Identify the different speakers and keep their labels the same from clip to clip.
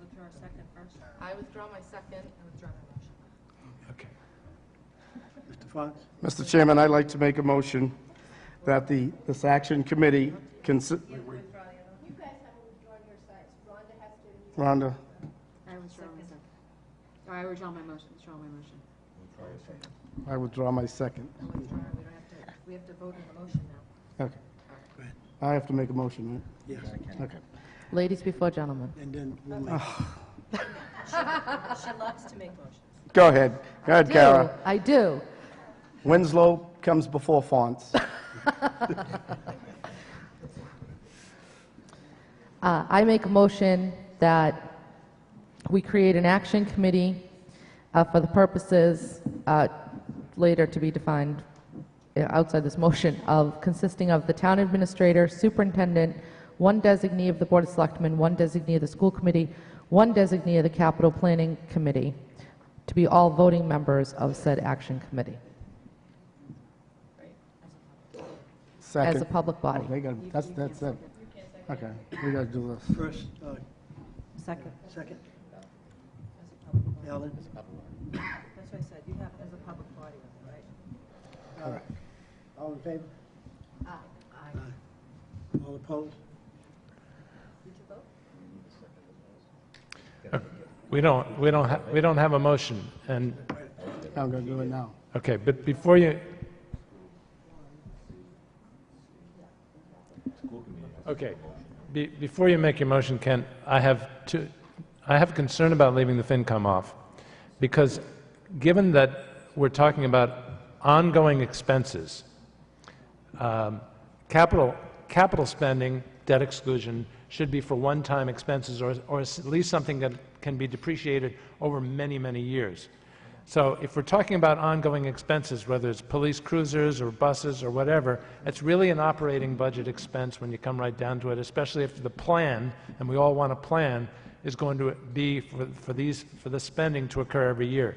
Speaker 1: withdraw our second first?
Speaker 2: I withdraw my second.
Speaker 1: I withdraw my motion.
Speaker 3: Okay. Mr. Fox?
Speaker 4: Mr. Chairman, I'd like to make a motion that the, this action committee, consi-
Speaker 5: You guys haven't withdrawn your sides. Rhonda has to.
Speaker 4: Rhonda,
Speaker 1: I withdraw my second. Or I withdraw my motion, withdraw my motion.
Speaker 4: I withdraw my second.
Speaker 1: I withdraw, we don't have to, we have to vote on the motion now.
Speaker 4: Okay. I have to make a motion,
Speaker 3: Yes.
Speaker 4: right? Okay.
Speaker 2: Ladies before gentlemen.
Speaker 3: And then we'll make,
Speaker 1: She loves to make motions.
Speaker 4: Go ahead. Go ahead, Kara.
Speaker 2: I do.
Speaker 4: Winslow comes before Fonz.
Speaker 2: Uh, I make a motion that we create an action committee uh, for the purposes uh, later to be defined uh, outside this motion of consisting of the town administrator, superintendent, one designee of the Board of Selectmen, one designee of the school committee, one designee of the capital planning committee, to be all voting members of said action committee as a
Speaker 4: Second.
Speaker 2: public
Speaker 4: Oh,
Speaker 2: body.
Speaker 4: they got, that's, that's it. Okay, we gotta do this.
Speaker 3: first, uh,
Speaker 1: Second.
Speaker 3: second,
Speaker 1: As a public body.
Speaker 3: Alan?
Speaker 1: That's what I said, you have, as a public body, right?
Speaker 3: All right. All in favor? Aye. All opposed?
Speaker 6: We don't, we don't, ha- we don't have a motion, and,
Speaker 4: I'm gonna do it now.
Speaker 6: okay, but before you... Okay, be- before you make your motion, Ken, I have two, I have concern about leaving the FinCom off, because given that we're talking about ongoing expenses, um, Capital, capital spending, debt exclusion, should be for one-time expenses, or, or at least something that can be depreciated over many, many years. So if we're talking about ongoing expenses, whether it's police cruisers or buses or whatever, it's really an operating budget expense when you come right down to it, especially if the plan, and we all want a plan, is going to be for, for these, for the spending to occur every year.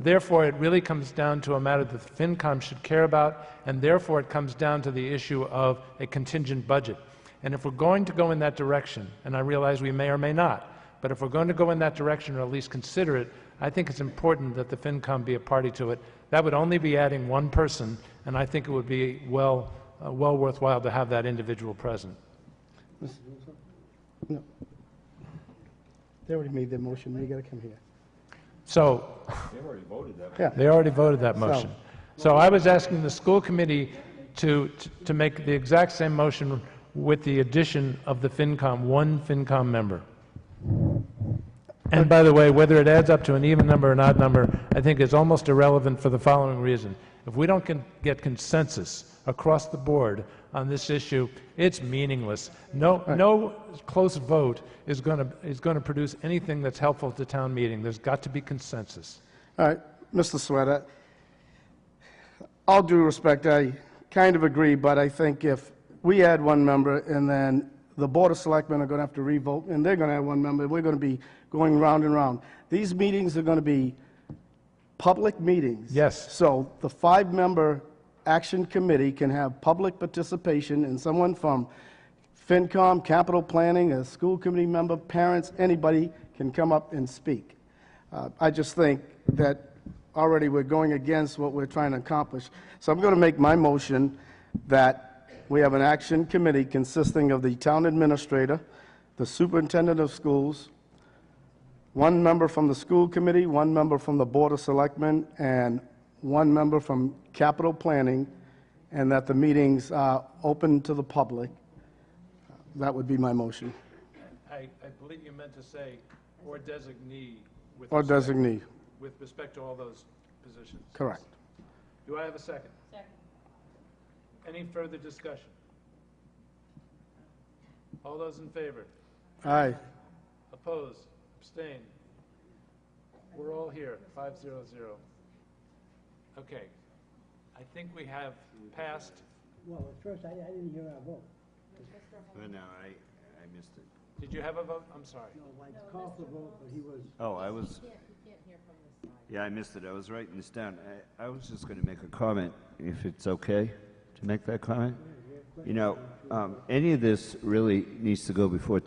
Speaker 6: Therefore, it really comes down to a matter that the FinCom should care about, and therefore it comes down to the issue of a contingent budget. And if we're going to go in that direction, and I realize we may or may not, but if we're going to go in that direction, or at least consider it, I think it's important that the FinCom be a party to it. That would only be adding one person, and I think it would be well, uh, well worthwhile to have that individual present.
Speaker 4: No. They already made their motion, they gotta come here.
Speaker 6: So,
Speaker 4: Yeah,
Speaker 6: They already voted that motion. So I was asking the school committee to, to make the exact same motion with the addition of the FinCom, one FinCom member. And by the way, whether it adds up to an even number or an odd number, I think is almost irrelevant for the following reason. If we don't con- get consensus across the board on this issue, it's meaningless. No, no close vote is going to, is going to produce anything that's helpful to town meeting. There's got to be consensus.
Speaker 4: all right, Mr. Sweater. All due respect, I kind of agree, but I think if we add one member and then the Board of Selectmen are going to have to revote, and they're going to add one member, we're going to be going round and round. These meetings are going to be public meetings.
Speaker 6: Yes.
Speaker 4: So the five-member action committee can have public participation and someone from FinCom, capital planning, a school committee member, parents, anybody can come up and speak. Uh, I just think that already we're going against what we're trying to accomplish. So I'm going to make my motion that we have an action committee consisting of the town administrator, the superintendent of schools, one member from the school committee, one member from the Board of Selectmen, and one member from capital planning, and that the meetings are open to the public. That would be my motion,
Speaker 6: I, I believe you meant to say, or designee with.
Speaker 4: or
Speaker 6: respect-
Speaker 4: designee,
Speaker 6: With respect to all those positions.
Speaker 4: correct.
Speaker 6: Do I have a second? Second. Any further discussion? All those in favor?
Speaker 4: Aye,
Speaker 6: Opposed? Abstain? We're all here, five zero zero. Okay. I think we have passed,
Speaker 3: Well, at first, I, I didn't hear our vote.
Speaker 7: No, no, I, I missed it.
Speaker 6: did you have a vote? I'm sorry.
Speaker 3: No, I called for vote, but he was,
Speaker 7: Oh, I was. Yeah, I missed it. I was writing this down. I, I was just gonna make a comment, if it's okay to make that comment. You know, um, any of this really needs to go before